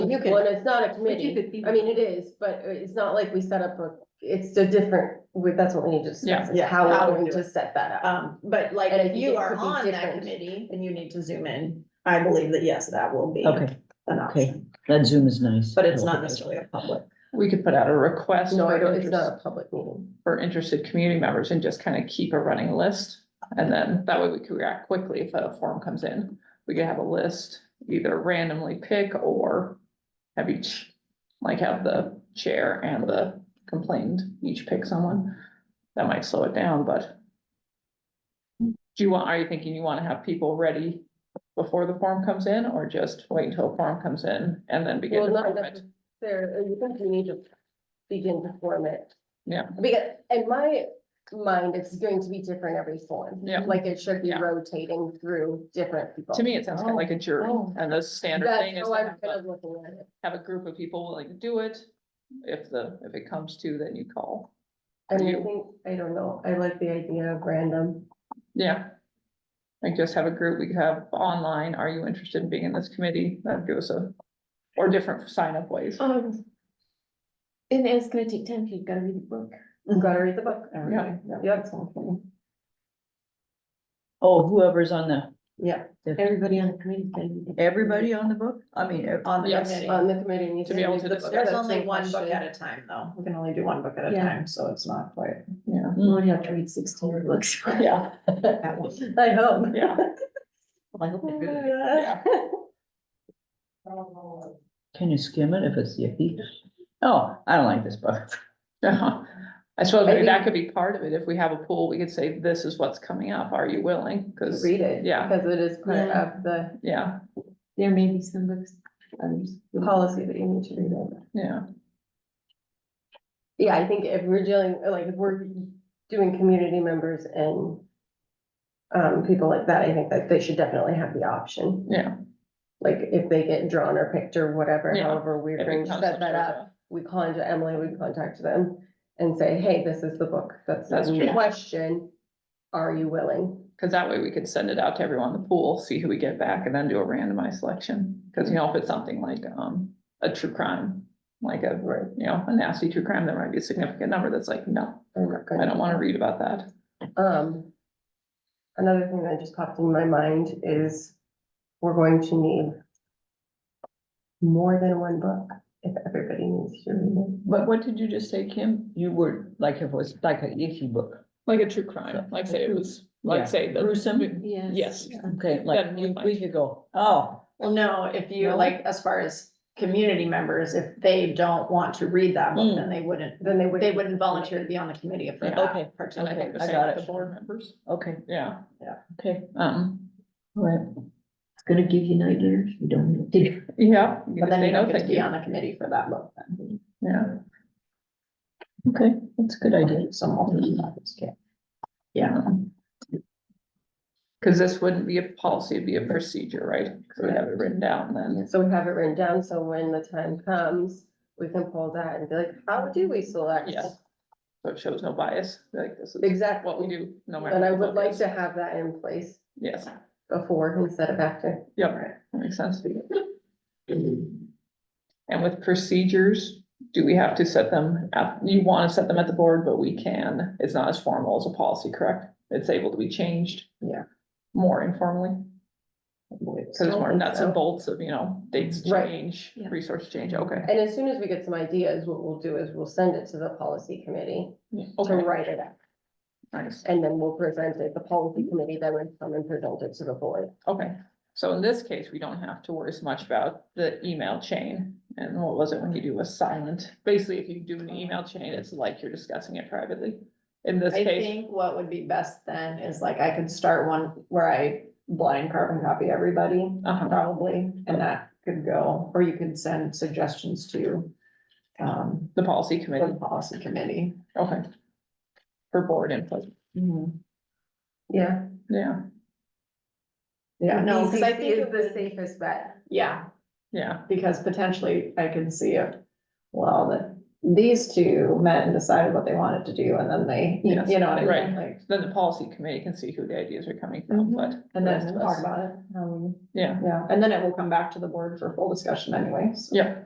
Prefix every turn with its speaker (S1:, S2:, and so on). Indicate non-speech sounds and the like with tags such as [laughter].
S1: you
S2: could-
S1: well, and it's not a
S2: But you
S1: committee,
S2: could be-
S1: I mean, it is, but uh, it's not like we set up a, it's a different, we- that's what we need to discuss, is
S2: Yeah.
S1: how
S2: How
S1: we're
S2: we
S1: going
S2: do
S1: to set that
S3: Uh,
S1: up.
S2: Um, but like,
S1: And I
S2: if
S1: think
S2: you
S1: it
S2: are
S1: could be
S2: on that
S1: different.
S2: committee and you need to zoom in, I believe that yes, that will be an
S4: Okay,
S2: option.
S4: that Zoom is nice.
S2: But it's not necessarily a public.
S3: We could put out a request
S1: No, I
S3: for
S1: don't, it's not
S3: interest,
S1: a public meeting.
S3: for interested community members and just kind of keep a running list. And then that way we could react quickly if a form comes in. We could have a list, either randomly pick or have each, like have the chair and the complained each pick someone. That might slow it down, but do you want, are you thinking you want to have people ready before the form comes in or just wait until a form comes in and then begin
S1: Well,
S3: to
S1: not
S3: form it?
S1: necessarily, you think you need to begin to form it.
S3: Yeah.
S1: Because, in my mind, it's going to be different every form.
S3: Yeah.
S1: Like it should be
S3: Yeah.
S1: rotating through different people.
S3: To me, it sounds kind of like a jury,
S1: Oh.
S3: and the standard
S1: That's
S3: thing is
S1: how
S3: to
S1: I'm
S3: have
S1: kind
S3: a,
S1: of looking at it.
S3: have a group of people willing to do it. If the, if it comes to, then you call.
S1: I mean, I
S3: You-
S1: think, I don't know, I like the idea of random.
S3: Yeah. Like just have a group, we could have online, are you interested in being in this committee? That gives a, or different sign up ways.
S1: Oh,
S5: Um. And it's gonna take time, 'cause you've gotta read the book.
S3: Mm-hmm.
S1: Gotta read the book.
S3: Yeah.
S1: Yep.
S4: Oh, whoever's on the,
S2: Yeah,
S5: Everybody on the committee's gotta read the book.
S4: everybody on the book? I mean, ev-
S2: on the
S3: Yes.
S2: committee.
S1: On the committee. needs
S3: To be able
S1: read
S3: to
S1: the
S3: discuss.
S1: book.
S2: There's
S1: That's
S2: only
S1: my
S2: one book
S1: question.
S2: at a time, though. We can only do one book at a
S5: Yeah.
S2: time, so it's not quite.
S3: Yeah,
S5: You only have to read sixteen books. [laughs] Well,
S3: yeah,
S2: that one.
S1: I hope.
S3: yeah,
S5: I hope they do.
S3: yeah.
S4: can you skim it if it's iffy? Oh, I don't like this book. [laughs]
S3: Uh-huh. [laughs] I suppose maybe
S1: Maybe-
S3: that could be part of it. If we have a pool, we could say, this is what's coming up. Are you willing? Cause,
S1: Read it.
S3: yeah.
S1: Because it is part
S5: Yeah.
S1: of the
S3: yeah,
S5: There may be some books, others.
S1: policy that you need to read it.
S3: yeah.
S1: Yeah, I think if we're dealing, like, if we're doing community members and um, people like that, I think that they should definitely have the option.
S3: Yeah.
S1: Like, if they get drawn or picked or whatever,
S3: Yeah.
S1: however we're
S3: If it
S1: going to
S3: comes
S1: set
S3: up
S1: that
S3: to
S1: up.
S3: the-
S1: we contact Emily, we contact them and say, hey, this is the book that's
S3: That's
S1: in
S3: true.
S1: question. Are you willing?
S3: Cause that way we could send it out to everyone in the pool, see who we get back and then do a randomized selection. Cause you know, if it's something like, um, a true crime, like a,
S1: Right.
S3: you know, a nasty true crime, there might be a significant number that's like, no,
S1: I'm not
S3: I
S1: gonna-
S3: don't wanna read about that.
S1: Um, another thing that just popped in my mind is we're going to need more than one book if everybody needs to read it.
S4: But what did you just say, Kim? You were, like, if it was like an iffy book.
S3: Like a true crime, like say it was,
S4: Yeah.
S3: like say the.
S4: Gruesome?
S5: Yes.
S3: Yes.
S4: Okay, like,
S3: Then we
S4: we
S3: might-
S4: we could go, oh,
S2: Well, no, if you
S4: No?
S2: like, as far as community members, if they don't want to read that book, then they wouldn't,
S1: Then they would.
S2: they wouldn't volunteer to be on the committee if they're
S3: Yeah.
S2: not.
S4: Okay.
S3: And I
S2: participating.
S3: think the
S4: I
S3: same
S4: got
S3: with
S4: it.
S3: the board members,
S4: okay,
S3: yeah,
S4: okay,
S3: um,
S4: all right.
S5: It's gonna give you nightmares, you don't need to.
S3: yeah. you
S2: But
S3: could
S2: then
S3: say
S2: you
S3: no,
S2: don't get to
S3: thank
S2: be
S3: you.
S2: on the committee for that book then.
S3: Yeah,
S4: Okay, that's a good idea.
S2: Some alternate topics, yeah. Yeah,
S3: cause this wouldn't be a policy, it'd be a procedure, right? So we have it written down then,
S1: So we have it written down, so when the time comes, we can pull that and be like, how do we select?
S3: Yes. so it shows no bias, like this is
S1: Exactly.
S3: what we do, no matter.
S1: And I
S3: what
S1: would
S3: it
S1: like
S3: is.
S1: to have that in place
S3: Yes,
S1: before instead of after.
S3: yep, that makes sense. And with procedures, do we have to set them at, you want to set them at the board, but we can, it's not as formal as a policy, correct? It's able to be changed.
S2: Yeah.
S3: More informally,
S2: I believe
S3: because
S2: so.
S3: it's more
S1: think
S3: nuts
S1: so.
S3: and bolts of, you know, dates
S1: Right.
S3: change,
S5: Yeah.
S3: resource change, okay.
S1: And as soon as we get some ideas, what we'll do is we'll send it to the policy committee to
S3: Okay,
S1: write it up.
S3: nice,
S1: And then we'll present it, the policy committee then would come and present it to the board.
S3: okay. So in this case, we don't have to worry as much about the email chain. And what was it when you do a silent? Basically, if you do an email chain, it's like you're discussing it privately. In this
S2: I
S3: case,
S2: think what would be best then is like I could start one where I blind carbon copy everybody,
S3: uh-huh.
S2: probably, and that could go, or you could send suggestions to um,
S3: The policy
S2: the
S3: committee,
S2: policy committee.
S3: okay. For board input,
S4: Mm-hmm.
S1: Yeah.
S3: yeah,
S2: Yeah, no, because I
S1: ECC
S2: think,
S1: Is
S2: it
S1: the
S2: would-
S1: safest bet.
S2: yeah,
S3: yeah,
S2: because potentially I can see if, well, that these two met and decided what they wanted to do, and then they, you know
S3: Yes,
S2: what I mean?
S3: right.
S2: Like,
S3: then the policy committee can see who the ideas are coming from,
S2: Mhm.
S3: but.
S2: And
S3: the
S2: then
S3: rest of
S2: talk
S3: us-
S2: about it, um,
S3: Yeah,
S2: yeah, and then it will come back to the board for full discussion anyways.
S3: yeah.